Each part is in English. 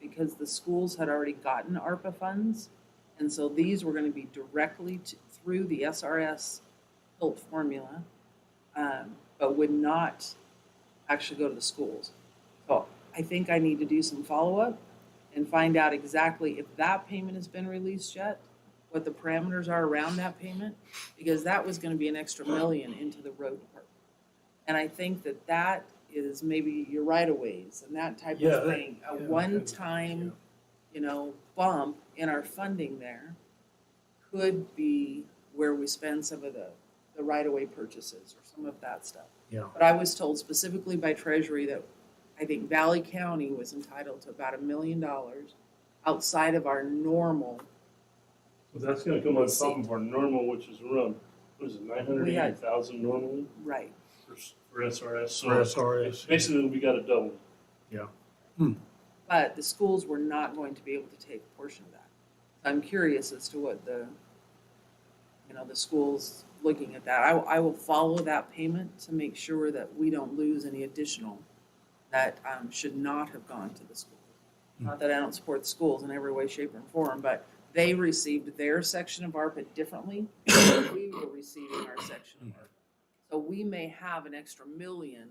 because the schools had already gotten ARPA funds. And so these were gonna be directly to, through the SRS built formula, um, but would not actually go to the schools. So I think I need to do some follow-up and find out exactly if that payment has been released yet, what the parameters are around that payment, because that was gonna be an extra million into the road department. And I think that that is maybe your right of ways and that type Yeah, of that- thing, a yeah, one-time, you know, bump in our funding there could be where we spend some of the, the right-of-way purchases or some of that stuff. Yeah. But I was told specifically by Treasury that I think Valley County was entitled to about a million dollars outside of our normal. But that's gonna come on Let's top see. of our normal, which is around, what is it, nine hundred eighty thousand normally Right. for, s- for SRS, so. For SRS. Basically, we got it doubled. But the schools were not going to be able to take a portion of that. I'm curious as to what the, you know, the schools looking at that. I, I will follow that payment to make sure that we don't lose any additional that um, should not have gone to the schools. Not that I don't support the schools in every way, shape, or form, but they received their section of ARPA differently than we were receiving our section of ARPA. So we may have an extra million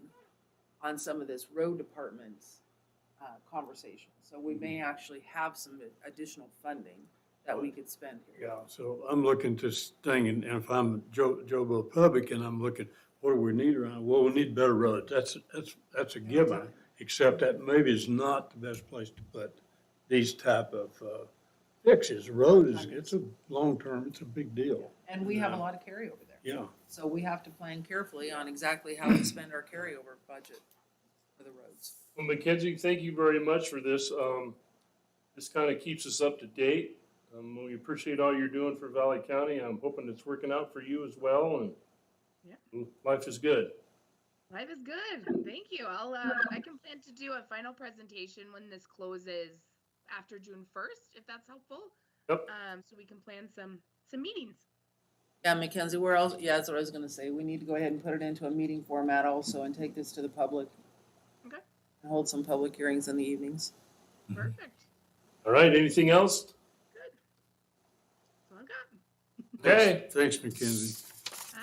on some of this road department's uh, conversation. So we may actually have some additional funding that we could spend here. Yeah, so I'm looking at this thing, and and if I'm Joe, Joe Bo Public, and I'm looking, what do we need around, well, we need better roads, that's, that's, that's a given. Except that maybe is not the best place to put these type of uh, fixes, road is, it's a long-term, it's a big deal, And we have a lot of carryover there. yeah. So we have to plan carefully on exactly how we spend our carryover budget for the roads. Well, Mackenzie, thank you very much for this. Um, this kind of keeps us up to date. Um, we appreciate all you're doing for Valley County. I'm hoping it's working out for you as well and Yeah. life is good. Life is good. Thank you. I'll uh, I can plan to do a final presentation when this closes after June first, if that's helpful. Yep. Um, so we can plan some some meetings. Yeah, Mackenzie, where else, yeah, that's what I was gonna say. We need to go ahead and put it into a meeting format also and take this to the public. Okay. And hold some public hearings in the evenings. Mm-hmm. Mhm. Perfect. All right, anything else? That's all I got. Okay. Thanks, Mackenzie.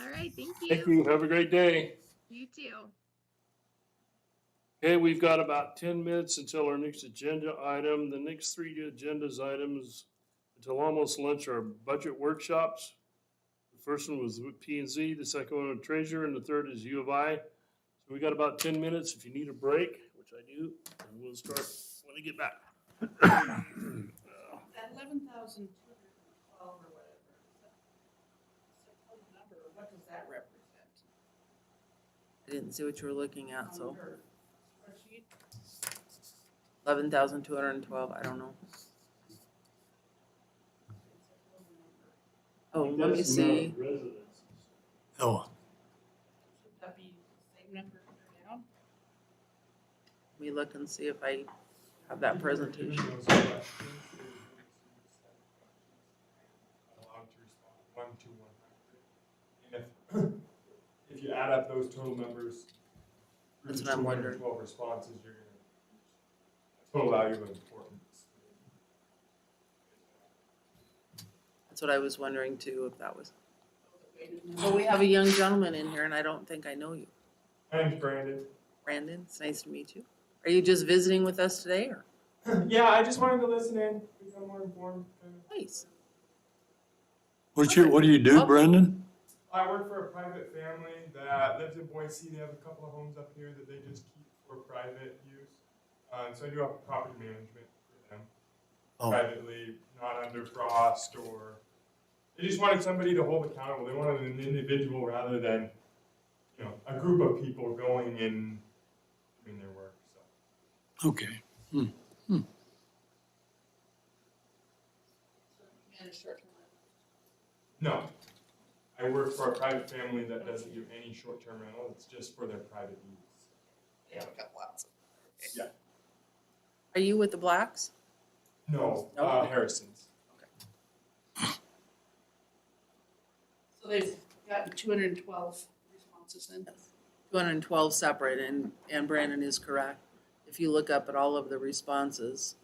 All right. Thank you. Thank you. Have a great day. You too. Okay, we've got about ten minutes until our next agenda item. The next three agendas items until almost lunch are budget workshops. The first one was with P and Z, the second one with Treasurer, and the third is U of I. So we got about ten minutes if you need a break, which I do, and we'll start when I get back. That eleven thousand two hundred and twelve or whatever, is that- is that total number, or what does that represent? I didn't see what you were looking at, On so your spreadsheet? eleven thousand two hundred and twelve, I don't know. It's a total number. Oh, let me see. Oh. Should that be the same number for now? Let me look and see if I have that presentation. Allowed to respond, one to one hundred. And if, if you add up those total numbers. through That's the what I'm wondering. 212 responses, you're gonna, total value of importance. That's what I was wondering too, if that was. The weighted Well, number? we have a young gentleman in here and I don't think I know you. My name's Brandon. Brandon, it's nice to meet you. Are you just visiting with us today or? Yeah, I just wanted to listen in, become more informed. kind of. Nice. What you, what do you do, Brendan? I work for a private family that lives in Boise. They have a couple of homes up here that they just keep for private use. Uh, so I do have property management for them. Oh. privately, not under frost or, they just wanted somebody to hold accountable. They wanted an individual rather than, you know, a group of people going and doing their work, so. Oh, Okay, Managed short-term rental. No, I work for a private family that doesn't do any short-term rental. It's just for their private use. They have got lots of. Are you with the Blacks? No, uh, Harrison's. So they've gotten two hundred and twelve responses in. Two hundred and twelve separate and, and Brandon is correct. If you look up at all of the responses,